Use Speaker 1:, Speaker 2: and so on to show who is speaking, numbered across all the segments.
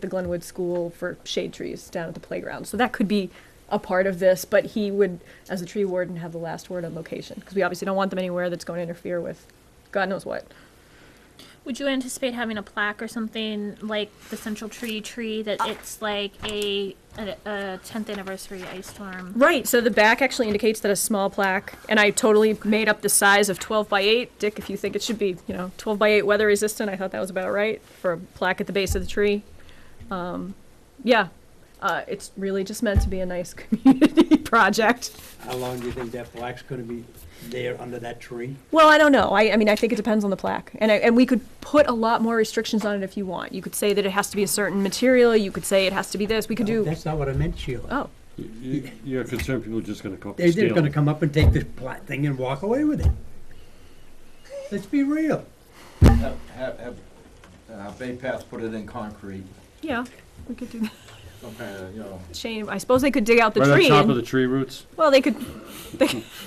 Speaker 1: the Glenwood School for shade trees down at the playground. So that could be a part of this, but he would, as the tree warden, have the last word on location because we obviously don't want them anywhere that's going to interfere with God knows what.
Speaker 2: Would you anticipate having a plaque or something like the Central Tree tree that it's like a a, a 10th anniversary ice storm?
Speaker 1: Right. So the back actually indicates that a small plaque, and I totally made up the size of 12 by 8. Dick, if you think it should be, you know, 12 by 8 weather resistant, I thought that was about right for a plaque at the base of the tree. Um, yeah. Uh, it's really just meant to be a nice community project.
Speaker 3: How long do you think that black's gonna be there under that tree?
Speaker 1: Well, I don't know. I, I mean, I think it depends on the plaque. And, I, and we could put a lot more restrictions on it if you want. You could say that it has to be a certain material. You could say it has to be this. We could do.
Speaker 3: Oh, That's not what I meant, Sheila.
Speaker 1: Oh,
Speaker 4: Y- y- You're concerned people are just gonna come up
Speaker 3: They're
Speaker 4: and
Speaker 3: just
Speaker 4: steal.
Speaker 3: gonna come up and take this black thing and walk away with it. Let's be real.
Speaker 5: Have, have, have, uh, Bay Path put it in concrete,
Speaker 1: yeah. We could do that.
Speaker 5: some kind of, you know.
Speaker 1: Shane, I suppose they could dig out the
Speaker 4: Right on
Speaker 1: tree.
Speaker 4: top
Speaker 1: and-
Speaker 4: of the tree roots.
Speaker 1: well, they could.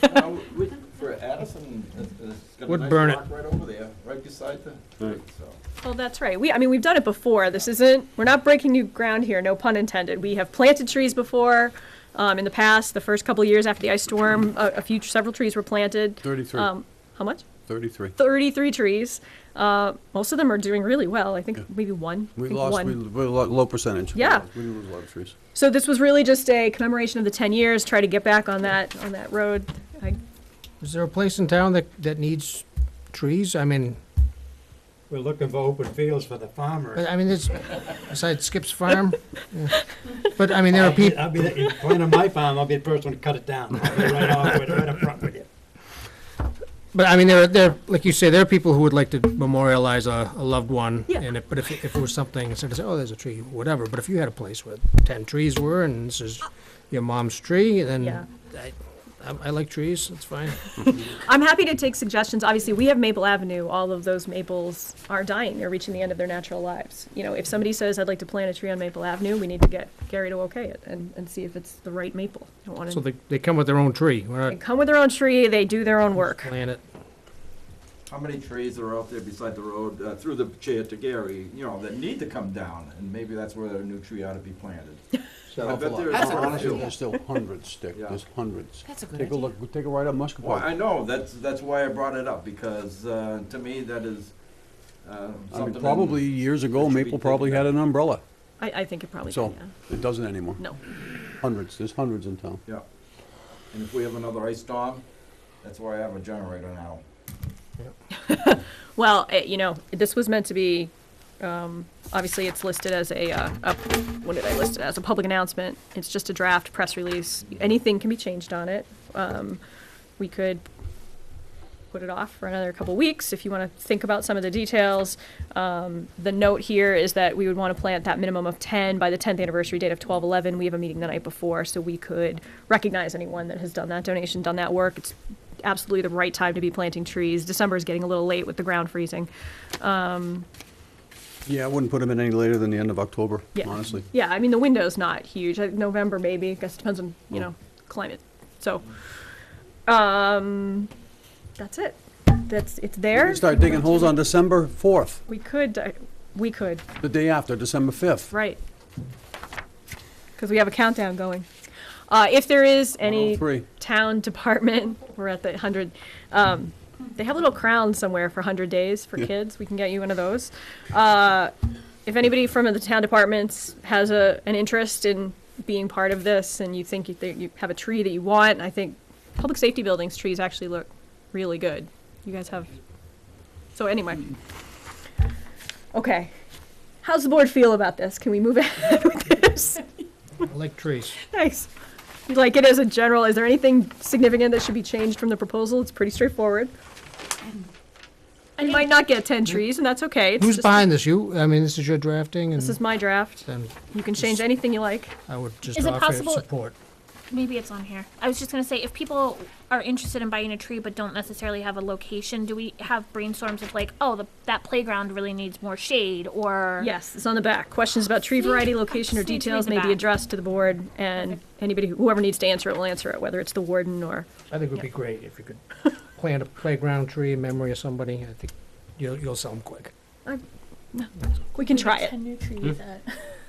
Speaker 5: Uh, we- For Addison, it's, it's got a
Speaker 3: Would
Speaker 5: nice
Speaker 3: burn it.
Speaker 5: rock right over there, right beside the,
Speaker 4: Right.
Speaker 5: so.
Speaker 1: Well, that's right. We, I mean, we've done it before. This isn't, we're not breaking new ground here, no pun intended. We have planted trees before. Um, in the past, the first couple of years after the ice storm, a, a few, several trees were planted.
Speaker 6: 33,
Speaker 1: Um, how much?
Speaker 6: 33.
Speaker 1: 33 trees. Uh, most of them are doing really well. I think
Speaker 6: Yeah.
Speaker 1: maybe one. I
Speaker 6: We
Speaker 1: think
Speaker 6: lost,
Speaker 1: one.
Speaker 6: we we lo- low percentage. We
Speaker 1: Yeah.
Speaker 6: lo- We lose a lot of trees.
Speaker 1: So this was really just a commemoration of the 10 years, try to get back on that, on that road. I,
Speaker 7: Is there a place in town that, that needs trees? I mean,
Speaker 3: We're looking for open fields for the
Speaker 7: I
Speaker 3: farmers.
Speaker 7: I mean, it's, besides Skip's Farm, yeah. but I mean, there are
Speaker 3: I'll be,
Speaker 7: people,
Speaker 3: I'll be, the- in front of my farm, I'll be the first one to cut it down. I'll be right off with, right up front with you.
Speaker 7: but I mean, there, are- there, like you say, there are people who would like to memorialize a, a loved one.
Speaker 1: Yeah.
Speaker 7: And it, but if, if it was something, instead of saying, oh, there's a tree, whatever, but if you had a place where ten trees were and this is your mom's tree, then
Speaker 1: Yeah.
Speaker 7: I, I- I like trees, it's fine.
Speaker 1: I'm happy to take suggestions. Obviously, we have Maple Avenue. All of those maples are dying. They're reaching the end of their natural lives. You know, if somebody says, I'd like to plant a tree on Maple Avenue, we need to get Gary to okay it and, and see if it's the right maple. I don't want
Speaker 7: So
Speaker 1: to.
Speaker 7: they, they come with their own tree, we're
Speaker 1: They
Speaker 7: not
Speaker 1: come with their own tree, they do their own work.
Speaker 7: planting it.
Speaker 5: How many trees are out there beside the road, uh, through the chair to Gary, you know, that need to come down, and maybe that's where a new tree ought to be planted.
Speaker 6: Set
Speaker 5: I
Speaker 6: off a
Speaker 5: bet
Speaker 6: lot.
Speaker 5: there's
Speaker 6: Hon-
Speaker 5: a-
Speaker 6: Honestly, there's still hundreds, Dick,
Speaker 5: Yeah.
Speaker 6: there's hundreds.
Speaker 8: That's a good
Speaker 6: Take a
Speaker 8: idea.
Speaker 6: look, take a ride up Muscat
Speaker 5: Well, I
Speaker 6: Park.
Speaker 5: know, that's, that's why I brought it up, because, uh, to me, that is, uh,
Speaker 6: I mean,
Speaker 5: something.
Speaker 6: probably years ago,
Speaker 5: should be
Speaker 6: Maple probably
Speaker 5: taken
Speaker 6: had an umbrella,
Speaker 1: I, I think it probably
Speaker 6: so
Speaker 1: did,
Speaker 6: it doesn't anymore.
Speaker 1: yeah. No.
Speaker 6: Hundreds, there's hundreds in town.
Speaker 5: Yeah, and if we have another ice storm, that's why I have a generator now.
Speaker 1: Well, eh, you know, this was meant to be, um, obviously, it's listed as a, uh, a, what did I list it as? A public announcement. It's just a draft press release. Anything can be changed on it. Um, we could put it off for another couple weeks if you want to think about some of the details. Um, the note here is that we would want to plant that minimum of 10 by the 10th anniversary date of 1211. We have a meeting the night before, so we could recognize anyone that has done that donation, done that work. It's absolutely the right time to be planting trees. December is getting a little late with the ground freezing.
Speaker 6: Yeah, I wouldn't put them in any later than the end of October,
Speaker 1: Yeah.
Speaker 6: honestly.
Speaker 1: Yeah, I mean, the window's not huge. I- November, maybe. I guess it depends on,
Speaker 6: Mm.
Speaker 1: you know, climate. So, um, that's it. That's, it's
Speaker 6: We
Speaker 1: there.
Speaker 6: can Start digging holes on December fourth,
Speaker 1: We could, uh, we could,
Speaker 6: the day after, December fifth.
Speaker 1: right. Because we have a countdown going. Uh, if there is any
Speaker 6: Three.
Speaker 1: town department, we're at the hundred, um, they have a little crown somewhere for hundred days for
Speaker 6: Yeah.
Speaker 1: kids. We can get you one of those. Uh, if anybody from the town departments has a, an interest in being part of this and you think you, think you have a tree that you want, I think public safety buildings trees actually look really good. You guys have, so anyway. Okay. How's the board feel about this? Can we move ahead with this?
Speaker 7: I like trees.
Speaker 1: Nice. You Like it as a general, is there anything significant that should be changed from the proposal? It's pretty straightforward. You might not get ten trees, and that's okay. It's
Speaker 7: Who's
Speaker 1: just-
Speaker 7: behind this? You, I mean, this is your drafting
Speaker 1: This is
Speaker 7: and,
Speaker 1: my draft.
Speaker 7: and
Speaker 1: You can change anything you like.
Speaker 7: I would just
Speaker 2: Is it
Speaker 7: offer
Speaker 2: possible-
Speaker 7: support.
Speaker 2: Maybe it's on here. I was just gonna say, if people are interested in buying a tree but don't necessarily have a location, do we have brainstorms of like, oh, the, that playground really needs more shade, or
Speaker 1: Yes, it's on the back. Questions about tree variety, location, or
Speaker 2: Just need to read
Speaker 1: details
Speaker 2: the
Speaker 1: may be
Speaker 2: back.
Speaker 1: addressed to the board, and anybody, who- whoever needs to answer it will answer it, whether it's the warden or,
Speaker 7: I think it would be great if you could plant a playground tree in memory of somebody. I think you'll, you'll sell them quick.
Speaker 1: we can try it.
Speaker 2: Ten new trees at